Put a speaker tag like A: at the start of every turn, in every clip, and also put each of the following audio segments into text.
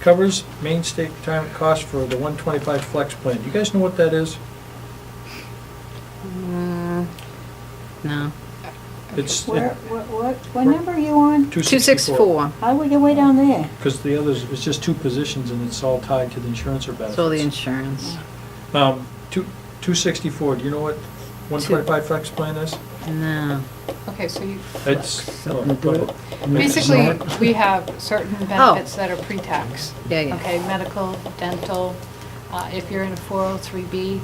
A: covers main state retirement costs for the 125 flex plan. Do you guys know what that is?
B: Mm, No.
A: It's
C: Where, what, what, what number are you on?
B: 264,
C: How do we get way down there?
A: Because the others, it's just two positions and it's all tied to the insurance or
B: it's all the
A: benefits.
B: insurance.
A: Um, two- 264, do you know what 125 flex plan is?
B: No.
D: Okay, so you,
A: It's,
E: Something
A: oh,
E: to do
A: oh,
E: it.
D: basically, we have certain benefits that are pre-tax.
B: Oh. Yeah, yeah.
D: Okay, medical, dental, uh, if you're in a 403B,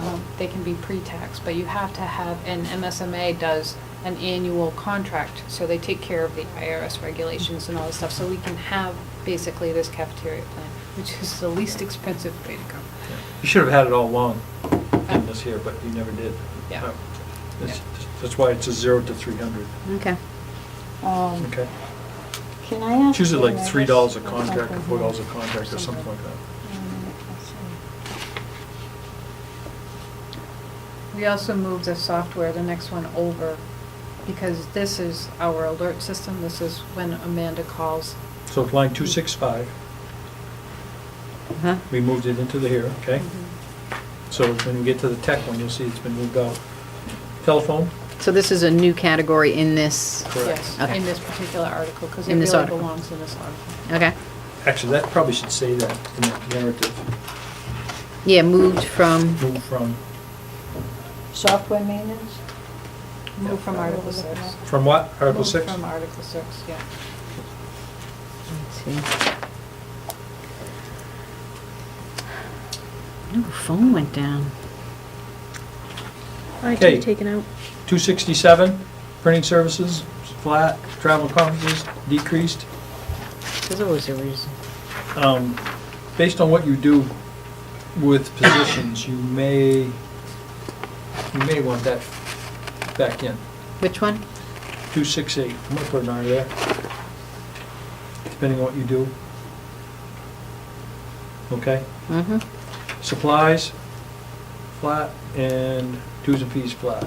D: um, they can be pre-tax, but you have to have, and MSMA does an annual contract, so they take care of the IRS regulations and all this stuff, so we can have basically this cafeteria plan, which is the least expensive way to go.
A: you should have had it all along in this here, but you never did.
D: Yeah.
A: Uh, That's that's why it's a zero to 300,
B: Okay.
C: Um,
A: okay?
C: Can I ask?
A: It's usually
C: you, I
A: like $3
C: guess,
A: a
C: or
A: contract or
C: something?
A: $4 a contract or something like that.
C: Um, let's see.
D: We also moved the software, the next one over, because this is our alert system, this is when Amanda calls.
A: So it's line 265,
B: Huh?
A: we moved it into the here, okay?
D: Mm-hmm.
A: So when we get to the tech one, you'll see it's been moved out. Telephone?
B: So this is a new category in this,
A: Correct.
D: Yes,
B: Okay.
D: in this particular article, because it
B: In this
D: really
B: article.
D: belongs in this article.
B: okay?
A: Actually, that probably should say that in the narrative.
B: Yeah, moved from,
A: Move from,
C: Software maintenance?
D: Move from Article
C: Yeah.
D: six.
A: from what? Article
D: Move
A: 6?
D: From Article six, yeah.
B: let's see. Ooh, phone went down.
A: Okay.
F: IT taken out.
A: 267, printing services, flat, travel conferences, decreased.
B: There's always a reason.
A: Um, Based on what you do with positions, you may, you may want that back in.
B: Which one?
A: 268, I'm gonna put an R there, depending on what you do. Okay?
B: Mm-hmm.
A: Supplies, flat, and dues and fees, flat.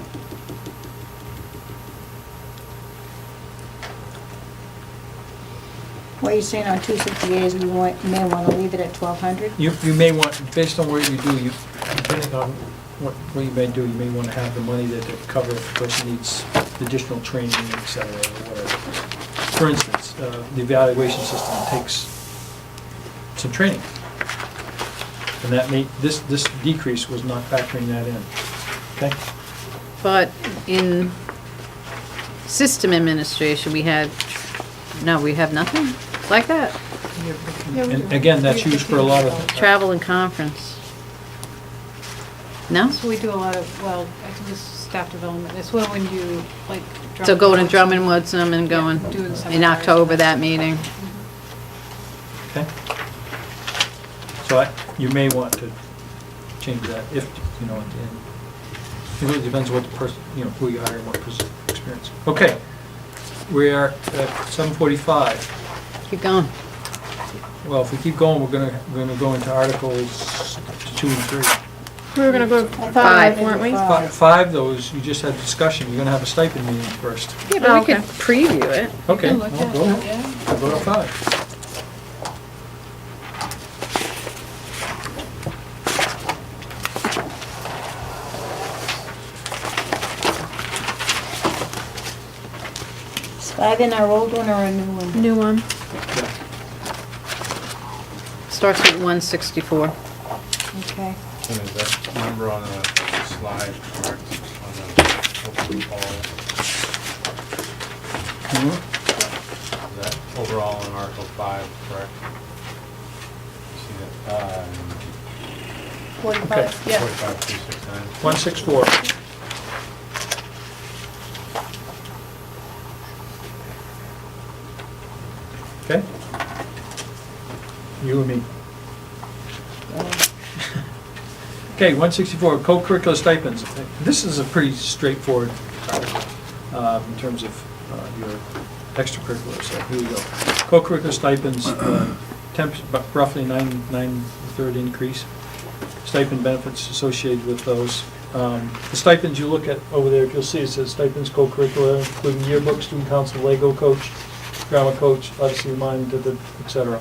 C: What you're saying on two sixty-eight is we want, may wanna leave it at twelve hundred?
A: You, you may want, based on what you do, you, depending on what, what you may do, you may wanna have the money that to cover if the person needs additional training, et cetera, or whatever. For instance, uh, the evaluation system takes some training. And that may, this, this decrease was not factoring that in, okay?
B: But in system administration, we had, no, we have nothing like that.
A: And again, that's used for a lot of.
B: Travel and conference. No?
D: So we do a lot of, well, I think this is staff development, it's well when you, like.
B: So
D: Drummond
B: going to
D: Woods.
B: Drummond Woodsum and going
D: Yeah, doing
B: in
D: seminars.
B: October, that meeting.
A: Okay. So I, you may want to change that if, you know, at the end. It really depends what the person, you know, who you hire and what person experience. Okay, we are at seven forty-five.
B: Keep going.
A: Well, if we keep going, we're gonna, we're gonna go into articles two and three.
F: We were gonna go
B: Five.
F: five, weren't we?
C: Five.
A: Fi- Five, those, you just had discussion, you're gonna have a stipend meeting first.
F: Yeah,
B: Oh,
F: but we could
B: preview it.
A: Okay,
D: You can look
A: well,
D: at
A: go,
D: it, yeah.
A: I'll go to five.
C: Is five in our old one or a new one?
F: New one.
A: Yeah.
B: Starts with 164.
C: Okay.
G: And is that number on the slide correct, on the open call,
A: Mhm.
G: is that overall in Article 5 correct? See that, Uh,
C: Forty-five?
G: um, 45269?
A: One six four. Okay? You and me. Okay, one sixty-four, co-curricular stipends. This is a pretty straightforward article um, in terms of uh, your extracurriculars, so here we go. Co-curricular stipends, uh, temp, bu- roughly nine, nine-third increase stipend benefits associated with those. Um, The stipends you look at over there, if you'll see, it says stipends, co-curricular, including yearbook, student council, Lego coach, drama coach, obviously mine, da- da- et cetera.